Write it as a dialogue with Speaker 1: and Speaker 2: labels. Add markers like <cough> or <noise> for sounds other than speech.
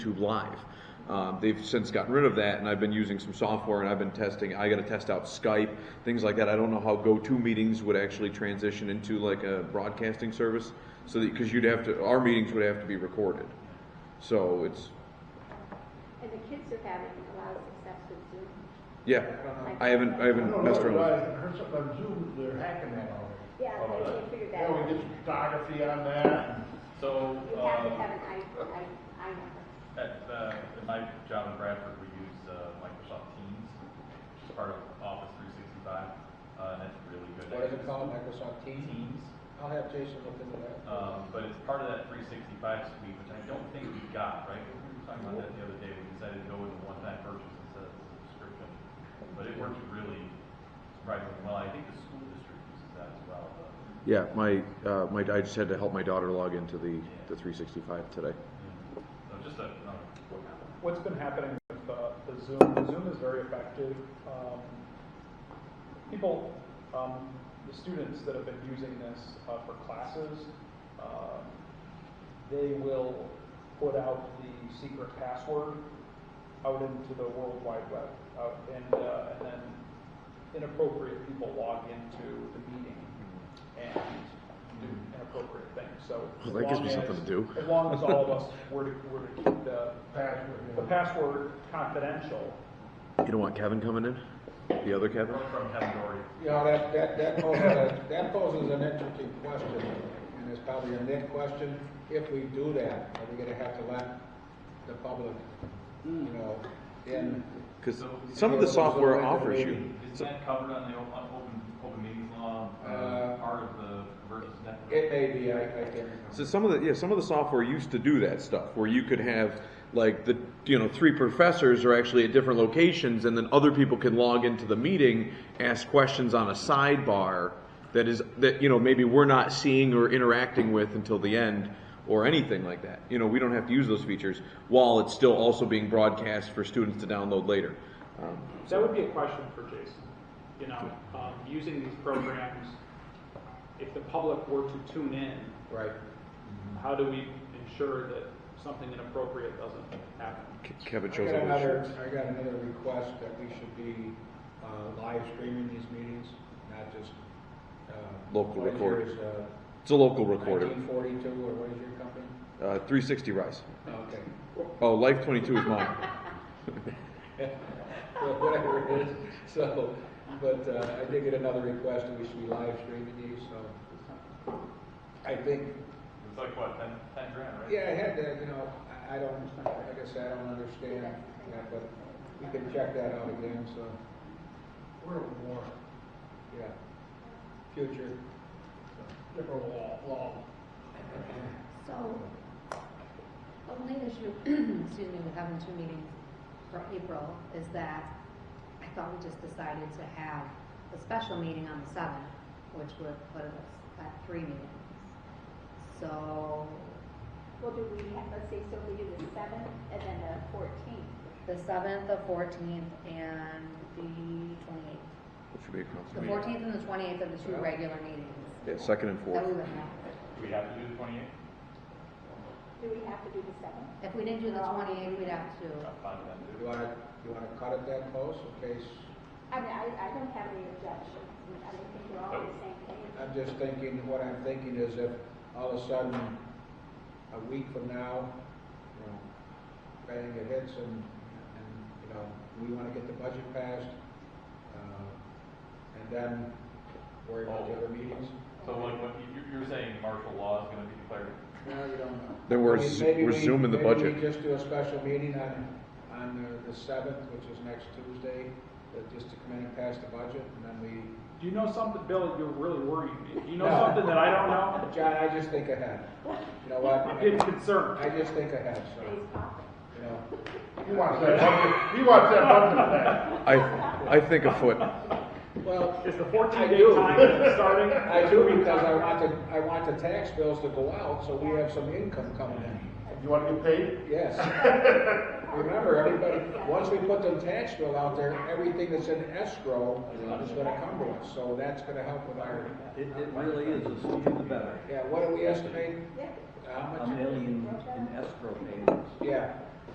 Speaker 1: YouTube Live. Um, they've since gotten rid of that, and I've been using some software, and I've been testing. I got to test out Skype, things like that. I don't know how GoTo meetings would actually transition into like a broadcasting service, so that because you'd have to, our meetings would have to be recorded. So it's
Speaker 2: And the kids are having a lot of success with Zoom.
Speaker 1: yeah, I haven't I
Speaker 3: I
Speaker 1: haven't
Speaker 3: don't know,
Speaker 1: messed around.
Speaker 3: but I
Speaker 1: With it.
Speaker 3: heard something on Zoom, they're hacking that already.
Speaker 2: Yeah, I didn't figure that
Speaker 3: Yeah,
Speaker 2: out.
Speaker 3: we get some photography on that.
Speaker 4: So,
Speaker 2: You have to
Speaker 4: um,
Speaker 2: have an I, I, I number.
Speaker 4: at, uh, at my job in Bradford, we use, uh, Microsoft Teams, which is part of Office three sixty-five, uh, and that's really good.
Speaker 5: What is it called, Microsoft Teams?
Speaker 4: Teams,
Speaker 5: I'll have Jason look into that.
Speaker 4: um, but it's part of that three sixty-five suite, which I don't think we got, right? We were talking about that the other day, we decided to go with a one-time purchase instead of a subscription, but it works really surprisingly well, I think the school district uses that as well, but,
Speaker 1: Yeah, my uh, my I just had to help my daughter log into the the 365 today.
Speaker 4: yeah. so just a, um, another quick comment.
Speaker 6: what's been happening with uh, the Zoom, Zoom is very effective. Um, people, um, the students that have been using this uh, for classes, um, they will put out the secret password out into the World Wide Web, out, and, uh, and then inappropriate people log into the meeting and do inappropriate things. So
Speaker 1: Well, that gives me
Speaker 6: as long
Speaker 1: something to
Speaker 6: as-
Speaker 1: do.
Speaker 6: As long as all of us were to, were to
Speaker 1: <laughs>
Speaker 6: keep the
Speaker 3: Password, you
Speaker 6: the
Speaker 3: know.
Speaker 6: password confidential.
Speaker 1: You don't want Kevin coming in? The other Kevin?
Speaker 4: We're from Kevin Doherty.
Speaker 5: You know, that, that, that poses, a- that poses an interesting question, and it's probably a net question. If we do that, are we gonna have to let the public, you know, in?
Speaker 1: Because some of the software offers you.
Speaker 4: Is that covered on the o- on open, open meetings law, uh,
Speaker 5: Uh,
Speaker 4: part of the versus network?
Speaker 5: It may be, I, I can't.
Speaker 1: So some of the yeah, some of the software used to do that stuff where you could have like the you know three professors are actually at different locations and then other people can log into the meeting, ask questions on a sidebar that is that you know maybe we're not seeing or interacting with until the end or anything like that. You know, we don't have to use those features while it's still also being broadcast for students to download later. Um,
Speaker 6: That would be a question for Jason. You know, um, using these programs, if the public were to tune in,
Speaker 5: Right.
Speaker 6: how do we ensure that something inappropriate doesn't happen?
Speaker 1: Ke- Kevin
Speaker 5: I
Speaker 1: shows
Speaker 5: got
Speaker 1: all his
Speaker 5: another,
Speaker 1: shirts.
Speaker 5: I got another request that we should be, uh, live streaming these meetings, not just, uh.
Speaker 1: Local
Speaker 5: what is
Speaker 1: record.
Speaker 5: yours, uh,
Speaker 1: It's a local recorder.
Speaker 5: 1942, or what is your company?
Speaker 1: Uh, 360 Rise.
Speaker 5: Okay.
Speaker 1: Oh, Life 22 is mine.
Speaker 5: <laughs> Well, Whatever it is, so, but uh, I did get another request, that we should be live streaming these, so. I think,
Speaker 4: It's like what, ten, ten grand, right?
Speaker 5: yeah, I had that, you know, I, I don't, like I said, I don't understand that, but we can check that out again, so,
Speaker 3: We're a war,
Speaker 5: yeah. Future.
Speaker 3: different law, law.
Speaker 7: So, only issue, <clears throat> excuse me, with having two meetings for April is that I thought we just decided to have a special meeting on the seventh, which would put us at three meetings. So,
Speaker 2: Well, do we have, let's say, so we do the seventh and then the fourteenth.
Speaker 7: the seventh, the fourteenth, and the twenty-eighth.
Speaker 1: That should be a council
Speaker 7: The
Speaker 1: meeting.
Speaker 7: fourteenth and the twenty-eighth are the two regular meetings
Speaker 1: Yeah, second and
Speaker 7: that we
Speaker 1: fourth.
Speaker 7: would have.
Speaker 4: Do we have to do the twenty-eight?
Speaker 2: Do we have to do the seventh?
Speaker 7: If we didn't do the twenty-eighth, we'd have to,
Speaker 4: I'm fine with that,
Speaker 5: You
Speaker 4: too.
Speaker 5: wanna, you wanna cut it that close in case,
Speaker 2: I mean, I, I don't have any objections. I mean, I think we're all on the same page.
Speaker 5: I'm just thinking, what I'm thinking is if all of a sudden, a week from now, you know, bang, it hits and, and, you know, we wanna get the budget passed, uh, and then worry about the other meetings.
Speaker 4: So like, what, you, you're saying martial law is gonna be declared?
Speaker 5: No, you don't know.
Speaker 1: Then we're
Speaker 5: I mean,
Speaker 1: z-
Speaker 5: maybe
Speaker 1: we're
Speaker 5: we-
Speaker 1: zooming the budget.
Speaker 5: Maybe we just do a special meeting on, on the- the seventh, which is next Tuesday, uh, just to come in and pass the budget, and then we,
Speaker 6: Do you know something, Bill, you're really worrying me. Do you know
Speaker 5: No.
Speaker 6: something that I don't know?
Speaker 5: John, I just think ahead. You know what?
Speaker 6: I'm getting concerned.
Speaker 5: I just think ahead, so,
Speaker 2: Today's topic.
Speaker 5: you know.
Speaker 3: He wants that budget, he wants that budget back.
Speaker 1: I, I think a foot.
Speaker 5: Well,
Speaker 6: Is the
Speaker 5: I
Speaker 6: 14-day
Speaker 5: do.
Speaker 6: time starting?
Speaker 5: <laughs> I do because I want the, I want the tax bills to go out, so we have some income coming in.
Speaker 3: You wanna get paid?
Speaker 5: Yes. Remember, everybody, once we put the tax bill out there, everything that's in escrow is gonna come to us, so that's gonna help with our.
Speaker 8: It, it really is, the sooner the better.
Speaker 5: Yeah, what do we estimate?
Speaker 2: Yeah.
Speaker 5: How
Speaker 8: A
Speaker 5: much?
Speaker 8: million in escrow payments.
Speaker 5: Yeah,